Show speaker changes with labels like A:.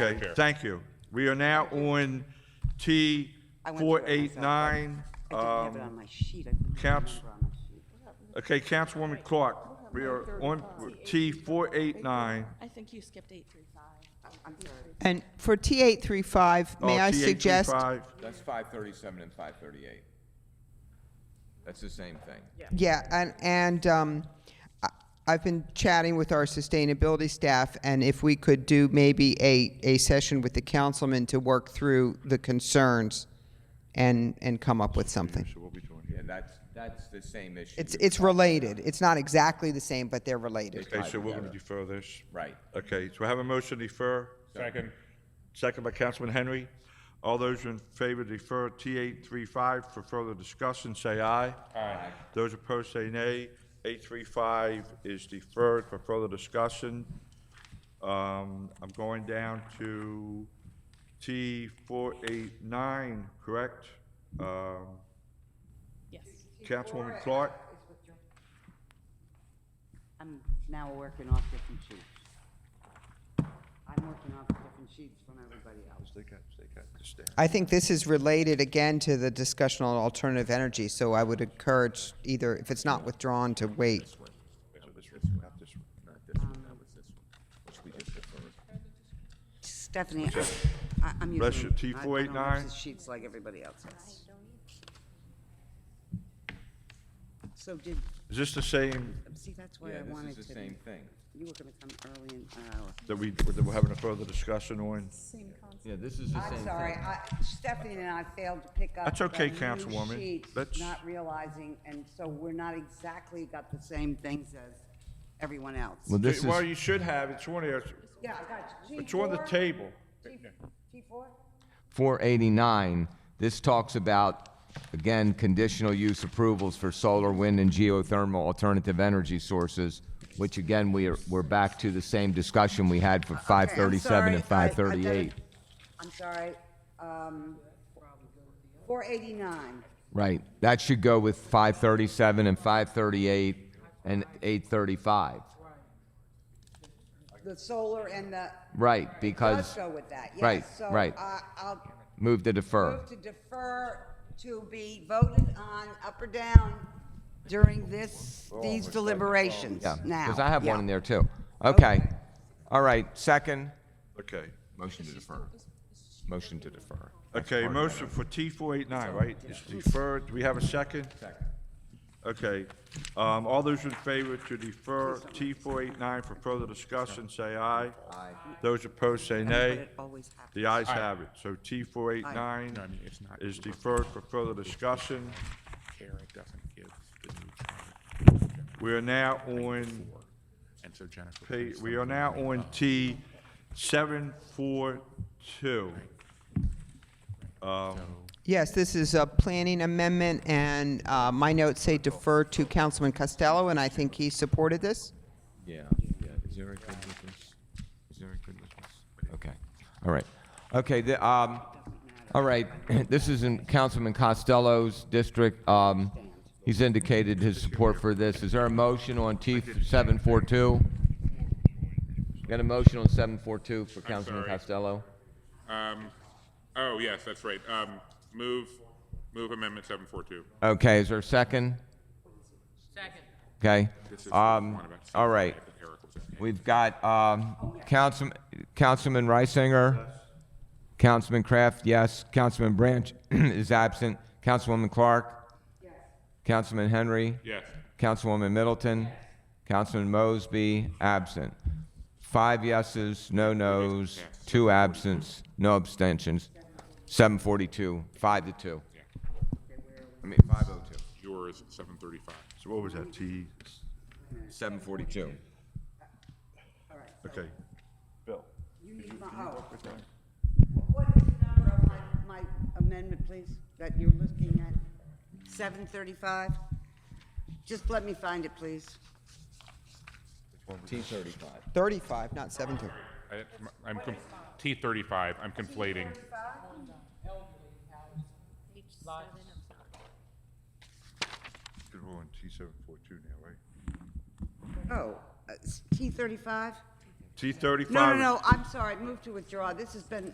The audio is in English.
A: Okay,
B: Fair.
A: thank you. We are now on T
C: I went through
A: four
C: it
A: eight nine. um,
C: I didn't have it on my sheet. I couldn't
A: Caps-
C: remember on my sheet.
A: Okay, Councilwoman Clark, we are on T four eight nine.
D: I think you skipped eight three five.
C: I'm sorry.
E: And for T835, may
A: Oh, uh,
E: I suggest?
F: That's five thirty-seven and five thirty-eight. That's the same thing.
E: Yeah, and, and um, I- I've been chatting with our sustainability staff, and if we could do maybe a, a session with the councilman to work through the concerns and, and come up with something.
F: Yeah, that's, that's the same issue.
E: It's,
F: you're
E: it's related. It's not exactly the same, but they're related.
A: Okay, so we're gonna defer this.
F: Right.
A: Okay, so I have a motion to defer,
B: Second.
A: second by Councilman Henry. All those in favor to defer T eight three five for further discussion, say aye.
B: Aye.
A: Those opposed say nay. Eight three five is deferred for further discussion. Um, I'm going down to T four eight nine, correct? Um,
D: Yes.
A: Councilwoman Clark?
C: I'm now working off different sheets. I'm working off different sheets from everybody else.
E: I think this is related again to the discussion on alternative energy, so I would encourage either, if it's not withdrawn, to wait.
C: Stephanie, I- I- I'm using.
A: Bless you,
C: I- I don't
A: T489.
C: use the sheets like everybody else has. So did,
A: Is this the same
C: see, that's why
F: Yeah,
C: I wanted
F: this
C: to.
F: is the same thing.
C: You were going to come early uh, in an hour.
A: that we, that we're having a further discussion on?
F: Yeah, this is the same thing.
C: I'm sorry, I, Stephanie and I failed to pick up.
A: That's okay,
C: the new
A: Councilwoman.
C: sheets,
A: Let's-
C: Not realizing, and so we're not exactly got the same things as everyone else.
F: Well, this is,
A: Well, you should have, it's on there,
C: Yeah, I got you.
A: it's on the
C: G4?
A: table.
C: G- G4?
F: four eighty-nine, this talks about, again, conditional use approvals for solar, wind, and geothermal alternative energy sources, which again, we are, we're back to the same discussion we had for five thirty-seven and
C: Okay, I'm
F: five
C: sorry, I- I did
F: thirty-eight.
C: it. I'm sorry, um, 489.
F: Right, that should go with five thirty-seven and five thirty-eight and eight thirty-five.
C: The solar and the,
F: Right,
C: let's
F: because,
C: go with that, yes.
F: right, right.
C: So uh, I'll
F: move to defer.
C: move to defer to be voted on up or down during this, these deliberations
F: Yeah,
C: now.
F: because I have one
C: Yeah.
F: in there too. Okay,
C: Okay.
F: all right, second.
A: Okay.
F: Motion to defer. Motion to defer.
A: Okay, motion for T four eight nine, right? It's deferred, do we have a second? Second. Okay, um, all those in favor to defer T four eight nine for further discussion, say aye. Aye. Those opposed, say
C: But
A: nay.
C: it always happens.
A: The ayes have it, so T four eight nine
B: No, I mean, it's not-
A: is deferred for further discussion.
B: Karen doesn't give the new charter.
A: We are now on
B: And so Jennifer.
A: pa-
B: put
A: we are now on T seven four two.
E: Yes, this is a planning amendment, and uh, my notes say defer to Councilman Costello, and I think he supported this.
F: Yeah, yeah, is Eric good with this? Is Eric good with this? Okay, all right. Okay, the, um, all right, this is in Councilman Costello's district. Um, he's indicated his support for this. Is there a motion on T seven four two? Got a motion on seven four two for Councilman
B: sorry.
F: Costello?
G: Um, oh, yes, that's right. Um, move, move amendment seven four two.
F: Okay, is there a second? Second. Okay. Um, all right. We've got, um, Councilman, Councilman Reisinger. Councilman Kraft, yes. Councilman Branch is absent. Councilwoman Clark. Councilman Henry.
G: Yes.
F: Councilwoman Middleton. Councilman Mosby, absent. Five yeses, no nos, two absents, no abstentions. Seven forty-two, five to two. I mean, five oh two.
G: Yours seven thirty five.
A: So what was that, T,
F: Seven forty-two.
A: okay. Bill.
C: You need my, oh. What is the number of my, my amendment, please, that you're looking at? Seven thirty-five? Just let me find it, please.
F: T thirty-five.
E: 35, not 70.
G: I'm, T thirty five, I'm conflating.
A: We're on T seven four two now, right?
C: Oh, T uh, thirty-five?
A: T thirty-five.
C: No, no, no, I'm sorry, move to withdraw. This has been